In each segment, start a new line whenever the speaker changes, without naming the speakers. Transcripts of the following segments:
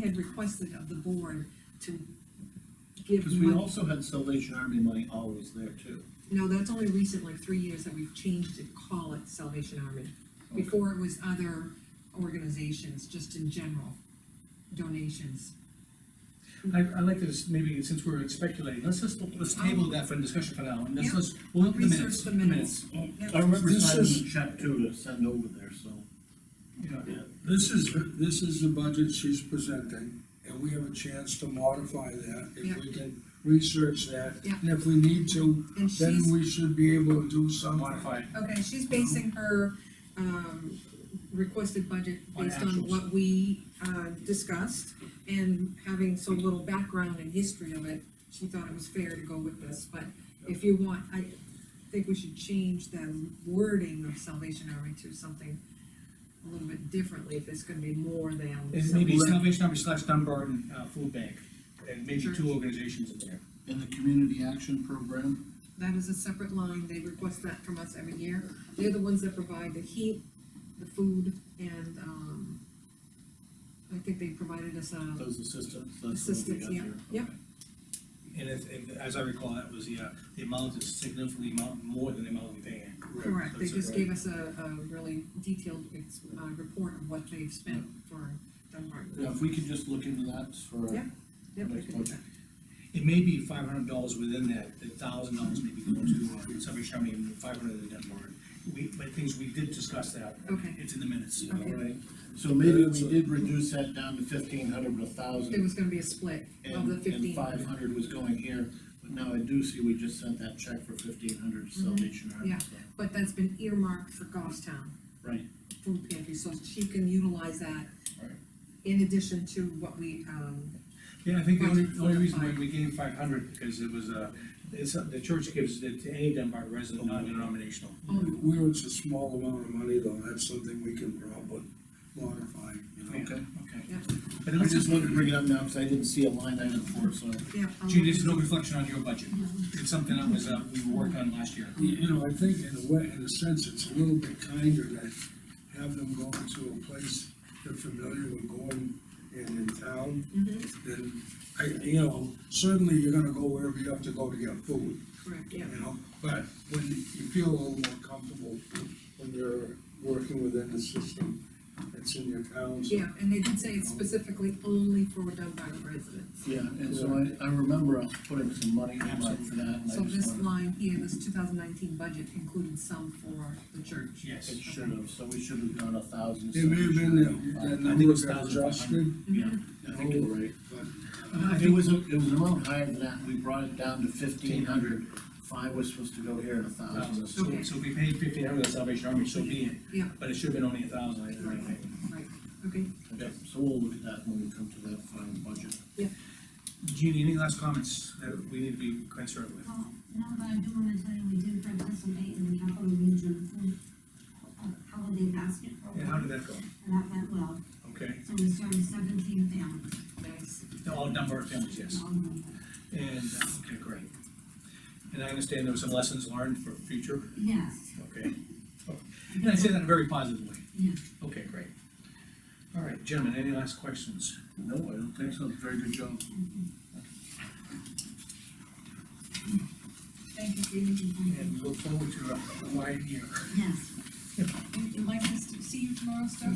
had requested of the board to give
Because we
money.
also had Salvation Army money always there too.
No, that's only recent, like three years that we've changed it, call it Salvation Army. Before it was other organizations, just in general, donations. Mm-hmm.
I, I like this, maybe since we're speculating, let's just, let's table that for discussion for now, and let's,
Yeah.
let's, we'll look at the
Research
minutes.
the minutes.
Okay. I remember
This
signing a
is-
check too to uh, send over there, so.
minutes. Yeah.
This is, this is the budget she's presenting, and we have a chance to modify that, if we can research that.
Yeah.
And if we need to,
And
then
she's,
we should be able to do something.
Modify, it.
okay, she's basing her, um, requested budget
On
based on
actuals.
what we, uh, discussed. And having so little background and history of it, she thought it was fair to go with this, but if you want, I think we should change the wording of Salvation Army to something a little bit differently, if it's gonna be more than.
and maybe Salvation Army slash Dunbarton, uh, Food Bank, and maybe
Sure.
two organizations in there.
In the community action program,
That is a separate line, they request that from us every year. They're the ones that provide the heat, the food, and, um, I think they provided us a,
those assistants, that's what we
Assistants,
got
yeah,
there.
yeah.
Okay.
And if, if, as I recall, that was the, uh, the amount is significantly amount more than the amount we pay.
correct, they
That's
just
right.
gave us a, a really detailed, ex- uh, report of what they've spent for Dunbarton.
Now, if we could just look into that for.
Yeah. Yep, we can do that.
It may be five hundred dollars within that, the thousand dollars maybe go to, uh, Salvation Army, and five hundred to Dunbarton. We, but things, we did discuss that.
Okay.
It's in the minutes.
Okay.
all right?
So maybe we did reduce that down to fifteen hundred, a
There
thousand,
was gonna be a split of
and,
the
and
fifteen.
five hundred was going here. But now I do see we just sent that check for fifteen hundred to
Mhm.
Salvation Army.
Yeah.
so-
But that's been earmarked for Goffstown
Right,
food pantry, so she can utilize that
Right.
in addition to what we, um,
Yeah, I think the only,
Budget
the only
for
reason why
five.
we gave five hundred, because it was, uh, it's, the church gives it to any Dunbar resident, non-denominational.
own.
Where it's a small amount of money though, that's something we can probably modify, you know?
okay.
Okay.
Yeah.
But
I just
it's just,
wanted to bring it up now, because I didn't see a line item for it, so.
yeah. I'll
Gee,
look
this is no
into it.
reflection on your budget. It's something that was, uh, we worked on last year.
You you know, I think in a way, in a sense, it's a little bit kinder to have them go to a place they're familiar with going and in town
Mhm,
then, I, you know, certainly you're gonna go wherever you have to go to get food,
Correct,
you
yeah.
know? But when you feel a little more comfortable when you're working within the system that's in your town. so-
Yeah, and they did say it's specifically only for Dunbar residents.
Yeah, and so I, I remember us putting some money in for that, and I
So this
just wanted,
line here, this two thousand nineteen budget included some for the church.
Yes.
it should have, so we should have gone a thousand.
It may have been that,
Yeah,
that
I think it
number
was
got
1,500.
adjusted,
Mm-hmm.
Mm-hmm.
I think you're right.
I
It
think,
was, a- it was an amount higher than that, we brought it down to fifteen hundred, five was supposed to go here and a thousand.
Um, so, so we paid fifteen hundred to Salvation Army, so be it.
Yeah.
But it should have been only a thousand, I think.
Right, okay.
Okay, so we'll look at that when we come to that final budget.
Jeannie, any last comments that we need to be concerned with?
Well, no, but I do wanna tell you, we did participate in the Capital Region Food Holiday Basket
And how
Program,
did that go?
and that went well.
Okay,
So we served seventeen families,
Nice.
all Dunbar families, yes.
all of them.
And, uh, okay, great. And I understand there were some lessons learned for future,
Yes.
okay? And I say that very positively.
Yeah.
Okay, great. All right, gentlemen, any last questions?
No, I don't think so, very good job.
Thank you, Judy.
And we look forward to uh, a wide year.
Yes.
Would you like us to see you tomorrow, Steph?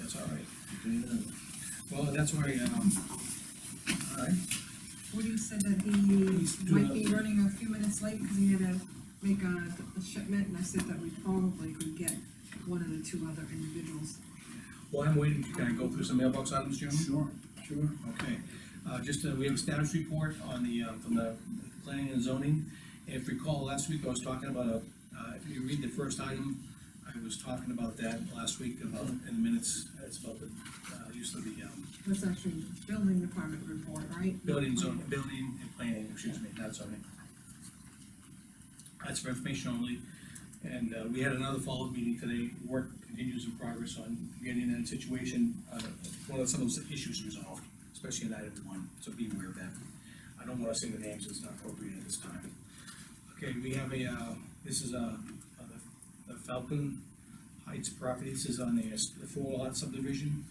That's all right.
Yeah.
Well, that's where, um, all right,
Woody said that he
do
might
a-
be running a few minutes late because he had to make a a shipment, and I said that we probably could get one of the two other individuals.
while I'm waiting, can I go through some mailbox items, gentlemen?
Sure.
sure.
Okay, uh, just, uh, we have a status report on the, uh, from the planning and zoning. If you recall, last week I was talking about, a, uh, if you read the first item, I was talking about that last week about, in the minutes, it's about the, uh, use of the, um,
That's actually building department report, right?
building zone, building and planning, excuse me, not zoning. That's for information only, and, uh, we had another follow-up meeting today, work continues in progress on getting that situation, uh, one of some of those issues resolved, especially in item one, so be aware of that. I don't wanna sing the names, it's not appropriate at this time. Okay, we have a, uh, this is a, the Falcon Heights property, this is on the, the four lot subdivision.